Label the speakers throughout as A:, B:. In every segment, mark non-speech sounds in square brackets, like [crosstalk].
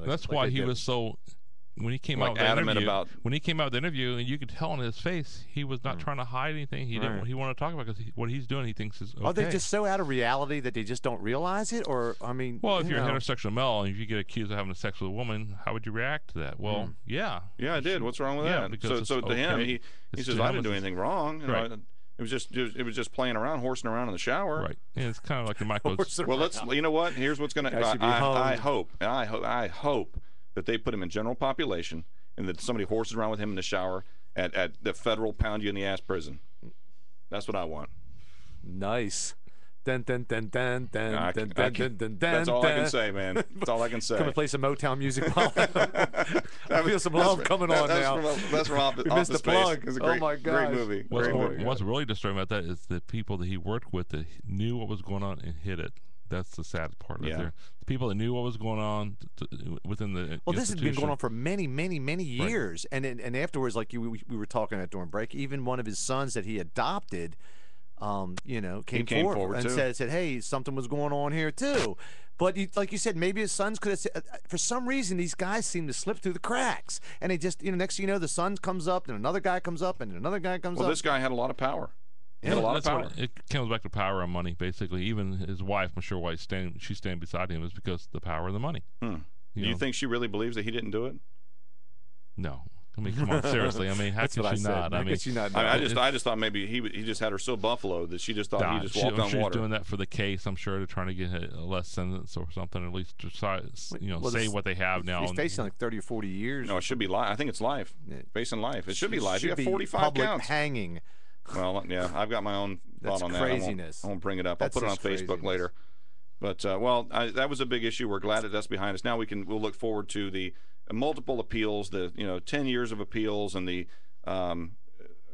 A: like
B: That's
A: like
B: why
A: they
B: he
A: did.
B: was so when he came
A: Like
B: out with that
A: adamant
B: interview-
A: about-
B: when he came out with the interview, and you could tell on his face he was
C: Mm.
B: not trying to hide anything. He didn't.
A: Right.
B: He wanted to talk about because he, what he's doing, he thinks is okay.
C: Are Oh, they just so out of reality that they just don't realize it? Or I mean,
B: well, if
C: you
B: you're
C: know,
B: an heterosexual male and if you get accused of having sex with a woman, how would you react to that? Well,
C: Mm.
B: yeah,
D: Yeah, I did. What's wrong with
B: Yeah,
D: that?
B: because
D: so,
B: it's
D: so to him,
B: okay.
D: he, he
B: It's
D: says,
B: to
D: "I
B: him,
D: didn't do
B: it's-
D: anything wrong. You know,
B: Right.
D: I- it was just it was just playing around, horsing around in the shower."
B: right. And it's kind
C: [laughs]
B: of like the
C: [laughs] horse
B: Michael's.
D: Well, let's. You know what? Here's what's going to.
C: Guy
D: I,
C: should be
D: I, I
C: hung.
D: hope. and I hope. I hope that they put him in general population, and that somebody horses around with him in the shower at, at the federal pound you in the ass prison. That's what I want.
C: nice. Dun, dun, dun, dun, dun,
D: I
C: dun,
D: can- I
C: dun,
D: can-
C: dun, dun,
D: That's
C: dun,
D: all I can
C: dun.
D: say, man. That's all I can say. [laughs]
C: Come and play some Motown music. While I
D: That was-
C: feel some
D: that's
C: love
D: fr-
C: coming
D: that-
C: on
D: that's
C: now.
D: From, that's from
C: [laughs]
D: Office,
C: We missed the
D: Office Space.
C: plug.
D: It's a
C: Oh
D: great,
C: my
D: Great
C: gosh.
D: movie.
B: What's,
D: great
B: more,
D: movie.
B: what's really disturbing about that is the people that he worked with that he knew what was going on and hid it. That's the sad part right
D: Yeah.
B: there. The people that knew what was going on t- t- within the
C: Well, this has been going
B: institution.
C: on for many, many, many years, and and, and afterwards, like you, we, we were talking at during break, even one of his sons that he adopted, um, you know, came,
D: came forward,
C: and
D: too.
C: said said, hey, something was going on here too. But you, like you said, maybe his sons could have. Said, for some reason, these guys seem to slip through the cracks, and they just, you know, next thing you know, the son comes up, and another guy comes up, and another guy comes
D: Well,
C: up.
D: this guy had a lot of power. He had
B: [laughs]
D: a lot of
B: That's
D: power.
B: what- it comes back to power and money, basically. Even his wife, I'm sure why he's standing, she's standing beside him is because of the power of the money.
D: Hmm.
B: You
D: Do you
B: know?
D: think she really believes that he didn't do it?
B: No. I mean,
D: [laughs]
B: come on, seriously. I mean, how
C: That's
B: can
C: what I
B: she
C: said.
B: not? I
C: How
B: mean,
C: could she not know?
D: I, mean, I just, I just thought maybe he w- he just had her so buffaloed that she just thought
B: nah,
D: he just
B: she-
D: walked
B: I'm
D: on
B: sure he's
D: water.
B: doing that for the case. I'm sure to trying to get a less sentence or something, or at least to si- s- you know,
C: Well,
B: say
C: this-
B: what they have now.
C: He's
B: and-
C: facing like thirty or forty years.
D: No, it should be life. I think it's life.
C: Yeah.
D: Facing life. It should be life.
C: Should
D: you got
C: be
D: 45
C: public
B: [laughs]
D: counts.
C: hanging.
D: well, yeah, I've got my own
C: That's
D: thought on that. I won't-
C: craziness.
D: I won't, bring it up. I'll
C: That's
D: put it on
C: just
D: Facebook
C: craziness.
D: later. But uh, well, I, that was a big issue. We're glad that that's behind us. Now we can we'll look forward to the multiple appeals, the you know 10 years of appeals, and the um,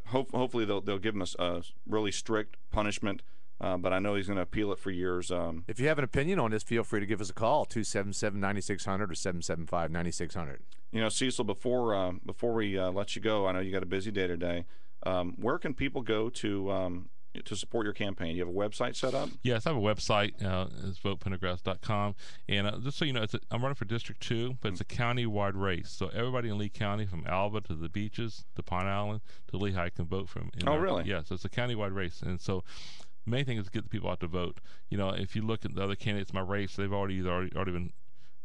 D: hope, hopefully they'll they'll give him a, s- a really strict punishment. Uh, but I know he's going to appeal it for years. Um,
C: If you have an opinion on this, feel free to give us a call 277 9600 or 775 9600.
D: You know, Cecil, before uh, before we uh, let you go, I know you got a busy day today. Um, where can people go to um, to support your campaign? You have a website set up.
B: Yes, I have a website. Uh, it's votepentagrass.com. And uh, just so you know, it's a, I'm running for District 2, but it's a
D: Mm.
B: county-wide race. So everybody in Lee County, from Alba to the beaches to Pine Island to Lehigh, can vote from. in
D: Oh,
B: our-
D: really?
B: Yeah, so it's a county-wide race. And so main thing is get the people out to vote. You know, if you look at the other candidates in my race, they've already either already, already been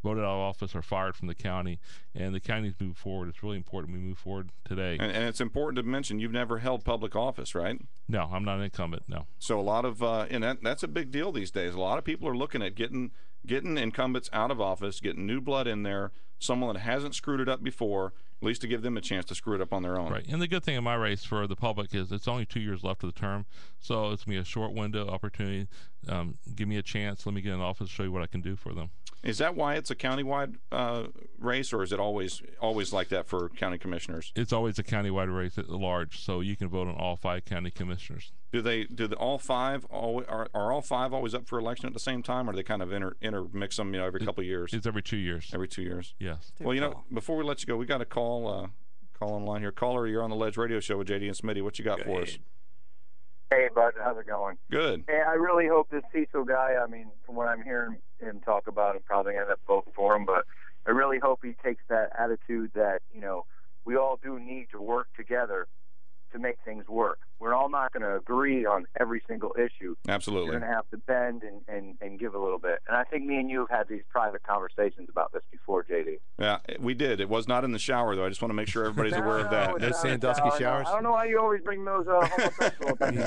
B: voted out of office or fired from the county. And the county's moved forward. It's really important we move forward today.
D: And, and it's important to mention you've never held public office, right?
B: No, I'm not an incumbent. No.
D: So a lot of uh, and that, that's a big deal these days. A lot of people are looking at getting getting incumbents out of office, getting new blood in there, someone that hasn't screwed it up before, at least to give them a chance to screw it up on their own.
B: Right. And the good thing in my race for the public is it's only two years left of the term. So it's going to be a short window opportunity. Um, give me a chance. Let me get in office, show you what I can do for them.
D: Is that why it's a countywide uh, race, or is it always always like that for county commissioners?
B: It's always a countywide race at large. So you can vote on all five county commissioners.
D: Do they do the all five always, are, are all five always up for election at the same time, or do they kind of inter, intermix them? You know, every couple of years,
B: It's every two years.
D: every two years.
B: Yes.
D: Well, you know, before we let you go, we got a call uh, call online here. Caller, you're on the Ledge Radio Show with JD and Smitty. What you got for us?
E: Hey, bud, how's it going?
D: Good.
E: Hey, I really hope this Cecil guy, I mean, from what I'm hearing him talk about, I'm probably going to end up voting for him, but I really hope he takes that attitude that, you know, we all do need to work together to make things work. We're all not going to agree on every single issue. You're
D: Absolutely.
E: going to have to bend and, and, and give a little bit. And I think me and you have had these private conversations about this before, JD.
D: Yeah, we did. It was not in the shower though. I just want to make sure everybody's aware of that.
E: it's
C: Those
E: not-
C: Sandusky
E: I know-
C: showers?
E: I [laughs] don't know why you always bring those uh, homosexual things.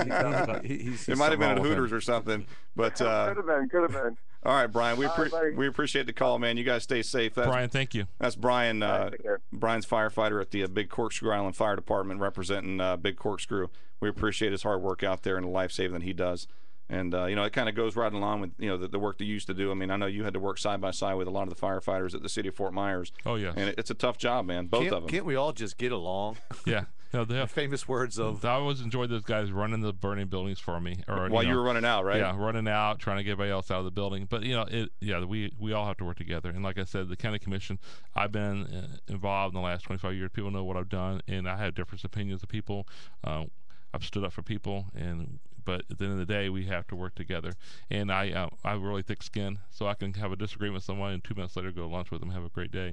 D: It might have been at Hooters or something, but uh,
E: [laughs] could have been, could have been.
D: all right, Brian. We
E: All right,
D: appre-
E: buddy.
D: we appreciate the call, man. You guys stay safe. That's
B: Brian, thank you.
D: That's Brian.
E: All right,
D: Uh,
E: take care.
D: Brian's firefighter at the uh, Big Corkscrew Island Fire Department, representing uh, Big Corkscrew. We appreciate his hard work out there and the life saving that he does. And uh, you know, it kind of goes right along with you know the, the work that you used to do. I mean, I know you had to work side by side with a lot of the firefighters at the city of Fort Myers,
B: Oh, yes.
D: and it, it's a tough job, man. Both
C: Can't,
D: of them.
C: can't we all just get along?
B: yeah. No, they
C: [laughs]
B: have-
C: Famous words of.
B: I always enjoyed those guys running the burning buildings for me. Or,
D: While
B: know,
D: you were running out, right?
B: Yeah, running out, trying to get everybody else out of the building. But you know, it yeah, we we all have to work together. And like I said, the county commission, I've been uh, involved in the last 25 years. People know what I've done, and I have different opinions of people. Uh, I've stood up for people, and but at the end of the day, we have to work together. And I uh, I have really thick skin, so I can have a disagreement with someone, and two minutes later, go to lunch with them, have a great day.